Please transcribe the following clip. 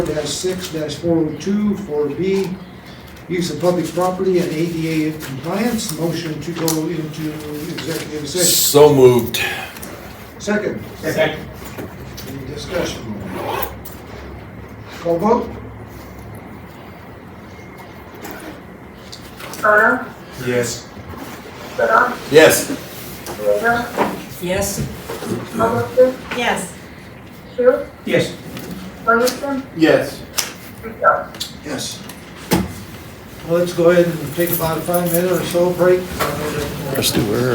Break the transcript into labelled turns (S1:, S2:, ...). S1: six four oh two, four B, use of public property and ADA compliance, motion to go into executive session.
S2: So moved.
S1: Second,
S3: Second.
S1: any discussion? Call vote?
S4: Turner,
S3: Yes.
S4: Gooder,
S2: Yes.
S4: Rader,
S5: Yes.
S4: Coniston,
S5: Yes.
S4: Shu,
S3: Yes.
S4: Livingston,
S2: Yes.
S4: Rico.
S1: Yes. uh, Let's go ahead and take about a five minute or so break. Let's do